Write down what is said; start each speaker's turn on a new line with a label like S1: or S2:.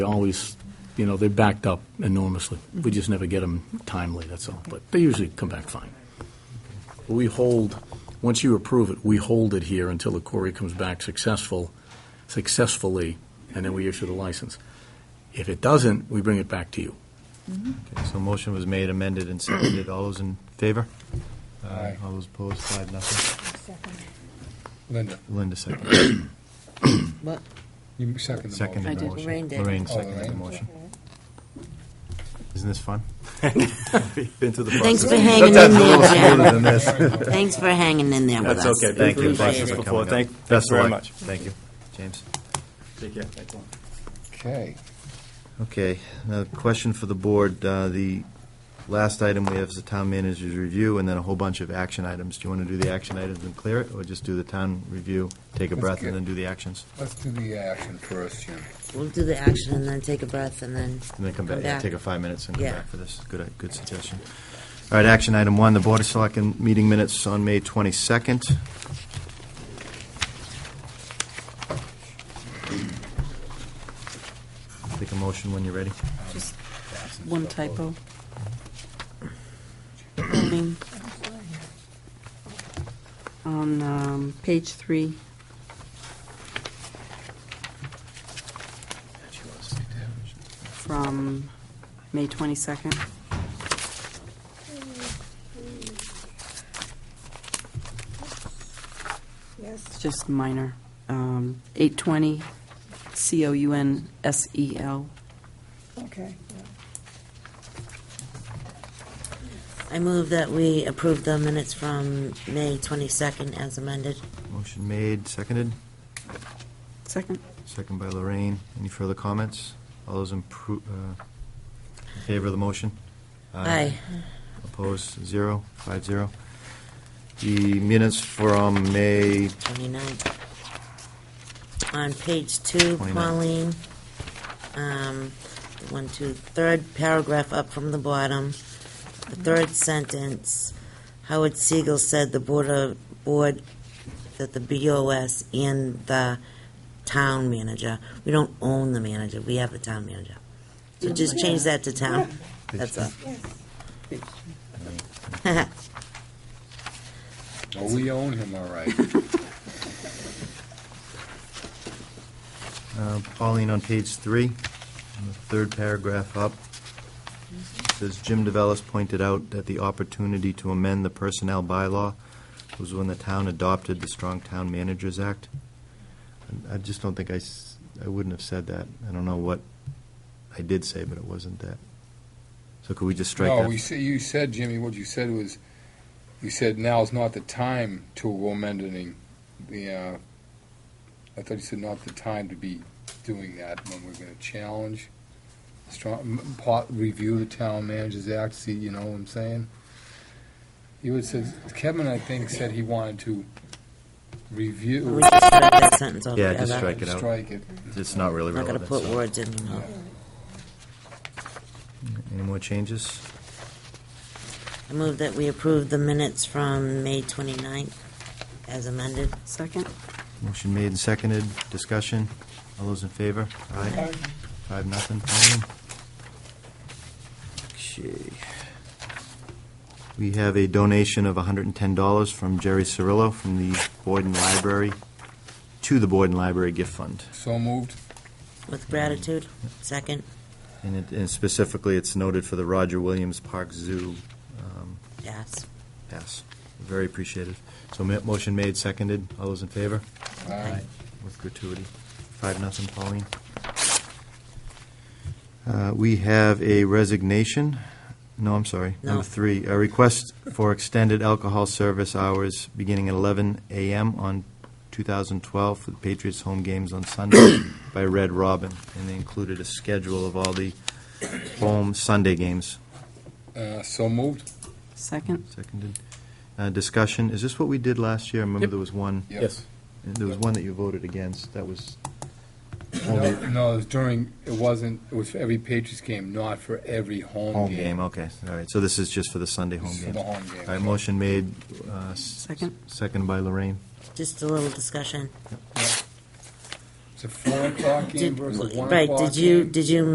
S1: They always, you know, they backed up enormously. We just never get them timely, that's all. But they usually come back fine. We hold, once you approve it, we hold it here until the quarry comes back successful, successfully, and then we issue the license. If it doesn't, we bring it back to you.
S2: Okay, So motion was made, amended, and seconded. All those in favor? Aye. All those opposed, five, nothing.
S3: Linda,
S2: Linda seconded.
S4: What?
S3: you second the motion.
S2: Seconded
S4: I
S2: the
S4: did.
S2: motion.
S4: Lorraine did.
S2: Lorraine
S3: Oh,
S2: seconded the
S3: Lorraine.
S2: motion. Isn't this fun?
S5: Been through the
S4: Thanks
S5: process.
S4: for hanging in there, Jim.
S2: than this.
S4: Thanks for hanging in there with us.
S5: That's okay. Thank
S2: you.
S4: Appreciate
S5: Thanks
S4: it.
S2: Appreciate
S5: for
S2: it.
S5: coming. Thank- thanks
S2: Best of
S5: very
S2: luck.
S5: much.
S2: Thank you. James?
S5: Take care.
S3: Okay.
S2: Okay, now, question for the board. Uh, The last item we have is the town manager's review, and then a whole bunch of action items. Do you want to do the action items and clear it, or just do the town review, take a
S3: Let's
S2: breath,
S3: get-
S2: and then do the actions?
S3: Let's do the action first, Jim.
S4: We'll do the action and then take a breath and then.
S2: And then come back, yeah, take a five minutes and come
S4: Yeah.
S2: back for this. Good, uh, good suggestion. All right, action item one, the Board of Selectmen meeting minutes on May 22nd. Take a motion when you're ready.
S6: Just one typo. Zoning. On um, page three, from May 22nd. It's just minor. Um, 820, C-O-U-N-S-E-L.
S7: Okay,
S4: I move that we approve the minutes from May 22nd as amended.
S2: Motion made, seconded,
S6: Second?
S2: second by Lorraine. Any further comments? All those in pro- uh, in favor of the motion?
S4: Aye.
S2: Opposed, zero, five zero. The minutes from May
S4: 29th. On page two,
S2: 29.
S4: Pauline, um, one, two, third paragraph up from the bottom, the third sentence, Howard Siegel said the board of, board, that the BOS and the town manager, we don't own the manager, we have a town manager. So just change that to town, that's all.
S3: Oh, we own him, all right.
S2: Uh, Pauline, on page three, on the third paragraph up, says Jim DeVellis pointed out that the opportunity to amend the personnel bylaw was when the town adopted the Strong Town Managers Act. And I just don't think I, s- I wouldn't have said that. I don't know what I did say, but it wasn't that. So could we just strike
S3: No,
S2: that?
S3: we say, you said, Jimmy, what you said was, you said now's not the time to amend any, the, uh, I thought you said not the time to be doing that when we're gonna challenge, strong, m- pot, review the town manager's act, see, you know what I'm saying? You had said, Kevin, I think, said he wanted to
S4: We
S3: review,
S4: just strike that sentence
S2: Yeah,
S4: altogether.
S2: just strike it out.
S3: strike it.
S2: It's not really
S4: Not gonna
S2: relevant.
S4: put
S2: so.
S4: words in your mouth.
S2: Any more changes?
S4: I move that we approve the minutes from May 29th as amended.
S6: Second?
S2: Motion made and seconded. Discussion? All those in favor? Aye. Five, nothing, Pauline. Okay. We have a donation of $110 from Jerry Cirillo from the Boyden Library to the Boyden Library Gift Fund.
S3: So moved.
S2: Mm.
S4: With gratitude, second,
S2: And it- and specifically, it's noted for the Roger Williams Park Zoo um,
S4: yes.
S2: pass. Very appreciated. So ma- motion made, seconded. All those in favor?
S3: Aye.
S2: with gratuity. Five, nothing, Pauline. Uh, We have a resignation, no, I'm sorry,
S4: No.
S2: number three, a request for extended alcohol service hours beginning at 11 a.m. on 2012 for the Patriots home games on Sunday by Red Robin, and they included a schedule of all the home Sunday games.
S3: Uh, so moved.
S6: Second?
S2: Seconded. Uh, Discussion, is this what we did last year? I remember
S1: Yep.
S2: there was one,
S1: Yes.
S2: there was one that you voted against, that was
S3: No, no, it was during, it wasn't, it was for every Patriots game, not for every home game.
S2: Home game, okay, all right, so this is just for the Sunday home
S3: This is
S2: game.
S3: for the home
S2: All
S3: game.
S2: right, motion made, uh, s-
S6: Second.
S2: second by Lorraine.
S4: Just a little discussion. It's a four o'clock game
S3: Did-
S4: versus one o'clock
S3: Right, did you,
S4: game.
S3: did you